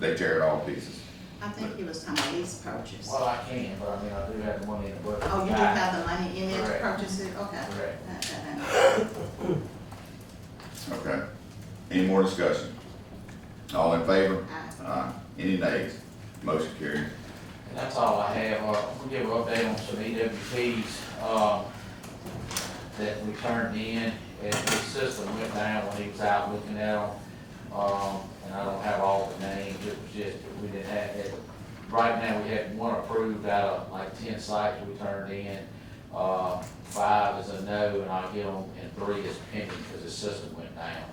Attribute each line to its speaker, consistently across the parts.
Speaker 1: They tear it all to pieces.
Speaker 2: I think he was talking about lease purchase.
Speaker 3: Well, I can, but I mean, I do have the money in the budget.
Speaker 2: Oh, you do have the money in it to
Speaker 3: Correct.
Speaker 2: purchase it, okay.
Speaker 3: Correct.
Speaker 2: Uh, uh, uh.
Speaker 1: Okay. Any more discussion? All in favor?
Speaker 2: Aye.
Speaker 1: Aye. Any nays? Motion carried.
Speaker 3: And that's all I have, uh, we'll give an update on some EWPs, um, that we turned in, and the system went down when he was out looking at them. Um, and I don't have all the names, it was just, that we didn't have, it, right now, we have one approved out of like ten sites we turned in. Uh, five is a no, and I'll give them, and three is pending, because the system went down,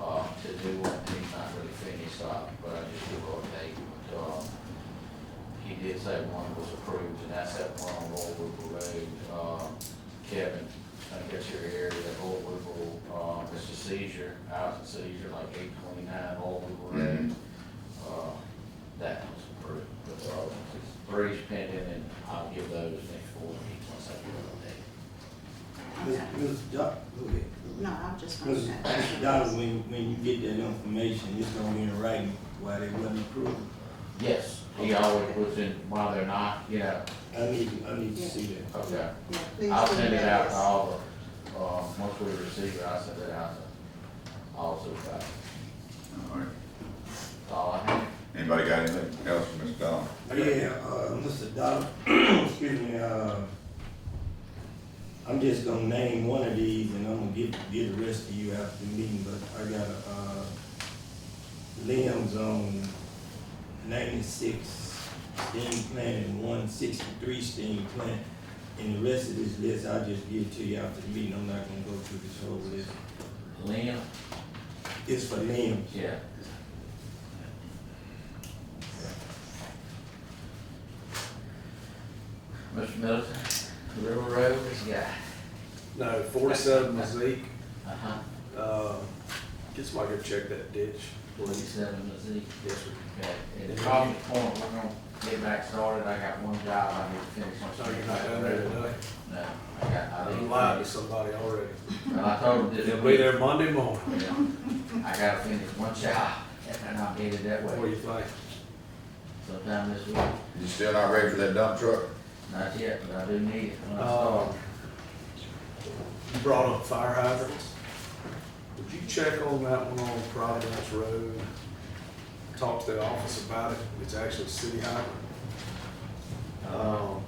Speaker 3: uh, to do one, he's not really finished, uh, but I just give an update, but, um, he did say one was approved, and that's that one on Old Whipple Road, um, Kevin, I think that's your area, that Old Whipple, um, it's a seizure, out of seizure, like eight twenty-nine Old Whipple Road. Uh, that was approved, but, uh, three's pending, and I'll give those next four weeks once I get
Speaker 4: Ms.
Speaker 2: Okay.
Speaker 4: Ms. Doc, go ahead.
Speaker 2: No, I'm just gonna
Speaker 4: Ms.
Speaker 2: say.
Speaker 4: Ms. Doc, when, when you get that information, it's gonna be in writing why they wasn't approved.
Speaker 3: an update. Yes, he always was in, while they're not, you know,
Speaker 4: I need, I need to see that.
Speaker 3: okay.
Speaker 2: Yeah, please
Speaker 3: I'll
Speaker 2: do
Speaker 3: send it out
Speaker 2: that.
Speaker 3: to all the, um, once we receive it, I'll send it out to all supervisors.
Speaker 1: All right.
Speaker 3: That's all I have.
Speaker 1: Anybody got anything else for Mr. Dodd?
Speaker 4: Yeah, uh, Mr. Doc, excuse me, uh, I'm just gonna name one of these and I'm gonna give, give the rest to you after the meeting, but I got, uh, limbs on ninety-six stem plant and one sixty-three stem plant. And the rest of this list, I'll just give to you after the meeting, I'm not gonna go through this whole list.
Speaker 3: Lynn?
Speaker 4: It's for limbs.
Speaker 3: Yeah. Mr. Middleton, River Road, this guy.
Speaker 5: No, forty-seven Mizzique,
Speaker 3: Uh-huh.
Speaker 5: uh, get somebody to go check that ditch, please.
Speaker 3: Forty-seven Mizzy.
Speaker 5: Yes, sir.
Speaker 3: Okay, and the problem point, we're gonna get back started, I got one job I need to finish. on
Speaker 5: So you're not down there today?
Speaker 3: No, I got, I
Speaker 5: I
Speaker 3: need.
Speaker 5: lied to somebody already.
Speaker 3: Well, I told him this.
Speaker 5: They'll be there Monday morning.
Speaker 3: Yeah. I gotta finish one job, and I'm headed that
Speaker 5: What do
Speaker 3: way
Speaker 5: you think?
Speaker 3: sometime this week.
Speaker 1: You still not ready for that dump truck?
Speaker 3: Not yet, but I do need it when I start.
Speaker 5: Uh, You brought up fire hydrants. Would you check on that one on Providence Road? Talk to the office about it. It's actually a city hydrant. Um,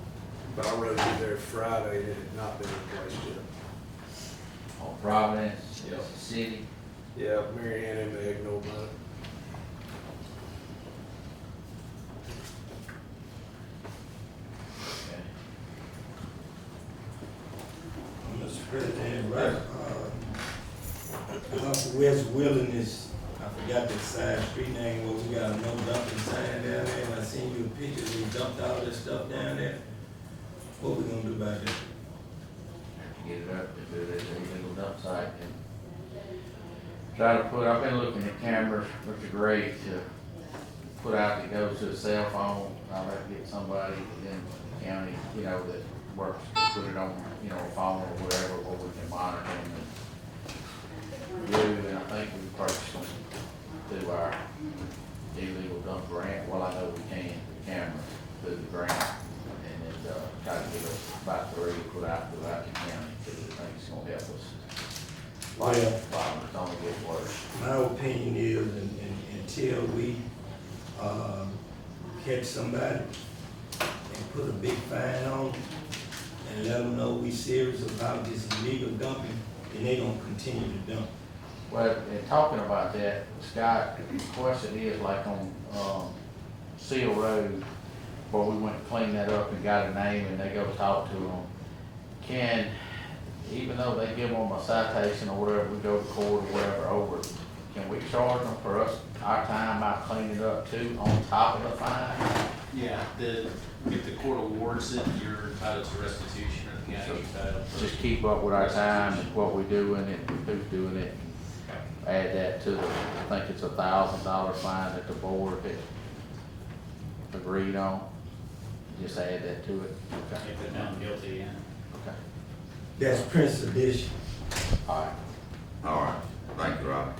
Speaker 5: But I rode through there Friday and it had not been replaced yet.
Speaker 3: on Providence, it's the city.
Speaker 5: Yeah, Mary Ann and Meg know about it.
Speaker 4: Mr. President, right, uh, Uncle West Wilderness, I forgot the side street name, where we got a no dumping sign down there, and I seen you pictures, we dumped all this stuff down there. What we gonna do about that?
Speaker 3: to get it up to do this illegal dump site and try to put, I've been looking at cameras, Mr. Gray, to put out that goes to a cell phone. I'll have to get somebody within the county, you know, that works, to put it on, you know, a phone or whatever, where we can monitor them and do, and I think we purchased them through our illegal dump grant, well, I know we can, the cameras, through the grant. And then, uh, try to get us about three, put out throughout the county, because I think it's gonna help us. Like,
Speaker 4: Well-
Speaker 3: um, it's only get worse.
Speaker 4: My opinion is, un- un- until we, uh, catch somebody and put a big fine on them and let them know we serious about this illegal dumping, then they gonna continue to dump.
Speaker 3: Well, in talking about that, Scott, the question is like on, um, Seal Road, where we went and cleaned that up and got a name and they go talk to them. Can, even though they give them a citation or whatever, we go to court or whatever over, it, can we charge them for us, our time out cleaning it up too, on top of the fine?
Speaker 6: Yeah, the, if the court awards it, you're entitled to restitution or the county entitled to.
Speaker 3: Just keep up with our time and what we doing it, and who's doing it, add that to the, I think it's a thousand dollar fine that the board had agreed on. Just add that to it. Okay,
Speaker 6: If they're found guilty, yeah.
Speaker 3: okay.
Speaker 4: That's Prince edition.
Speaker 3: All right.
Speaker 1: All right. Thank you, Rob.